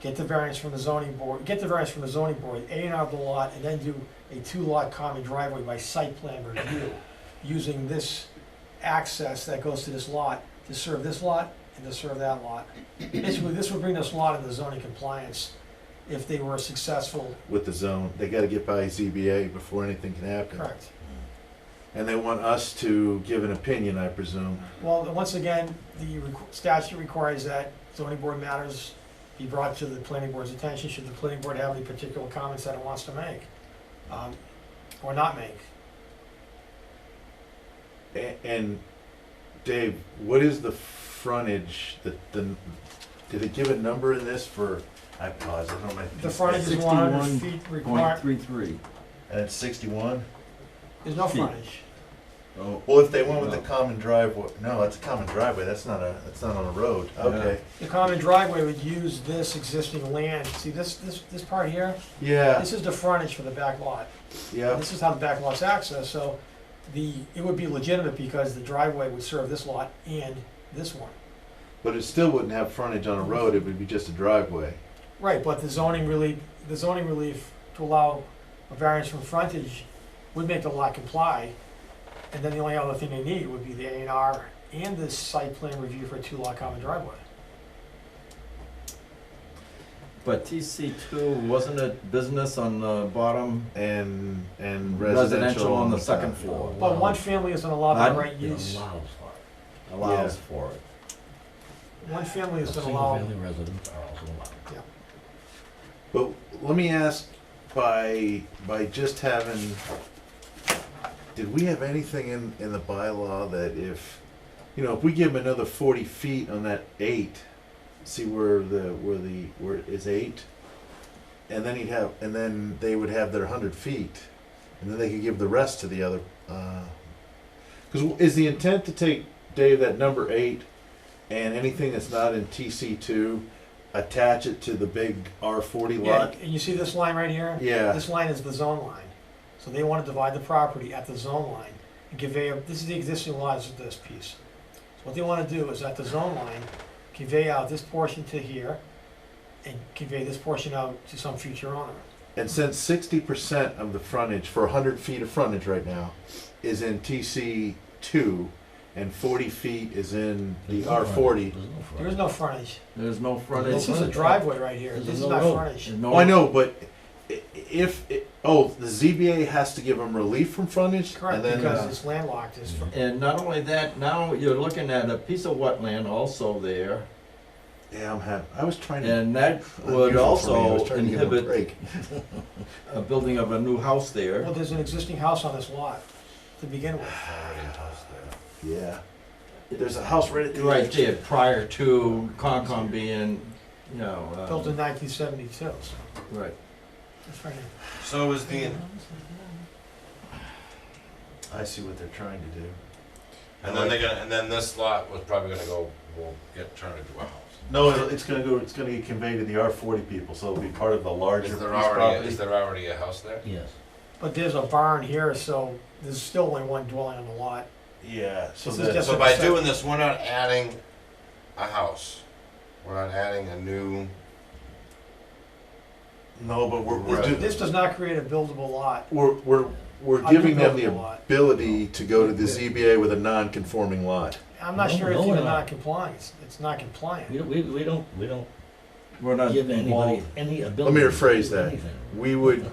get the variance from the zoning board, get the variance from the zoning board, A and R the lot, and then do a two-lot common driveway by site plan review, using this access that goes to this lot to serve this lot and to serve that lot. Basically, this would bring this lot into zoning compliance if they were successful, with the zone. They gotta get by ZBA before anything can happen. correct? And they want us to give an opinion, I presume. Well, once again, the requ- statute requires that zoning board matters be brought to the planning board's attention should the planning board have any particular comments that it wants to make, um, or not make. A- And Dave, what is the frontage, the, the, did it give a number in this for, I paused, I don't know. The frontage is one hundred feet Point required, three three. And it's sixty-one? there's no feet. frontage. Oh, Well, if they went with the No. common driveway, no, that's a common driveway, that's not a, that's not on a road, okay. The common driveway would use this existing land, see this, this, this part here, Yeah, this is the frontage for the back lot. yeah, This is how the back lot's accessed, so the, it would be legitimate because the driveway would serve this lot and this one. but it still wouldn't have frontage on a road, it would be just a driveway. Right, but the zoning relief, the zoning relief to allow a variance from frontage would make the lot comply. And then the only other thing they need would be the A and R and the site plan review for a two lot common driveway. But TC two, wasn't it business on the bottom? And, and Residential residential on the second floor. But one family isn't allowed the right use, Allows for Allows Yeah. for it. one family it. isn't allowed, Single-family residents are also allowed. But let me ask, by, by just having, did we have anything in, in the bylaw that if, you know, if we give them another forty feet on that eight, see where the, where the, where it is eight? And then he'd have, and then they would have their hundred feet, and then they could give the rest to the other, uh, cause is the intent to take, Dave, that number eight, and anything that's not in TC two, attach it to the big R forty yeah, lot? and you see this line right here? Yeah. This line is the zone line, so they wanna divide the property at the zone line and convey, a- this is the existing lot, this is this piece. So What they wanna do is at the zone line, convey out this portion to here and convey this portion out to some future owner. And since sixty percent of the frontage for hundred feet of frontage right now is in TC two, and forty feet is in the There's no R front- forty. there's There no is front. no frontage, There's no this frontage. is a driveway right here, There's this is no not road. frontage. no- Oh, I know, but i- if it, oh, the ZBA has to give them relief from frontage, Correct, and then because uh, it's landlocked, it's, fr- And not only that, now you're looking at a piece of wetland also there, yeah, I'm happy. I was trying to. and that that's would beautiful for me. I was also trying to give 'em a inhibit break. a building of a new house there. well, there's an existing house on this lot to begin with. Yeah, there's a house right at the Right edge. there, prior to Concom being, you know, uh, built in nineteen seventy-two, so, right. that's right. So is the, I see what they're trying to do. and then they're gonna, and then this lot was probably gonna go, will get turned into a house. No, it'll- it's gonna go. It's gonna get conveyed to the R forty people, so it'll be part of the larger Is piece there property. already, is there already a house there? Yes. But there's a barn here, so there's still only one dwelling on the lot. Yeah, so This is that, just- So by doing this, we're not adding a house, we're not adding a new, no, but we're, we're, do- This does not create a buildable lot. we're, we're, we're I do giving them build the a lot. ability to go to the ZBA with a non-conforming lot. I'm not No, sure it's no, we're even not. not compliant. It's- It's not We compliant. don't, we, we don't, we don't We're not give anybody involved. any Let ability. me to rephrase do that. anything. We would,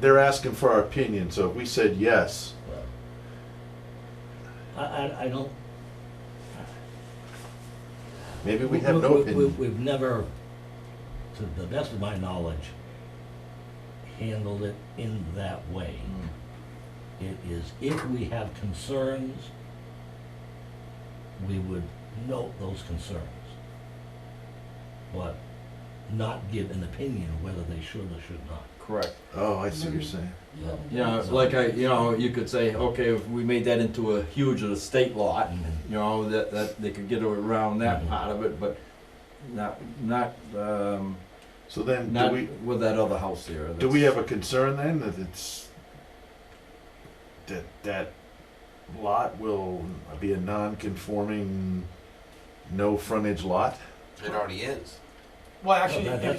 they're asking for our opinion, so if we said yes, Well, I, I, I don't. maybe we have no we- opinion. We've never, to the best of my knowledge, handled it in that way. Mm. It is, if we have concerns, we would note those concerns. But not give an opinion whether they should or should not. Correct. Oh, I see what you're saying. Yeah, like I, you know, you could say, okay, if we made that into a huge estate lot, you know, that, that they could get around that Mhm. Mm-hmm. part of it, but not, not, um, So then, do not we, with that other house there. do that's- we have a concern then that it's, that, that lot will be a non-conforming, no frontage lot? it already is. Well, actually, that- it- that's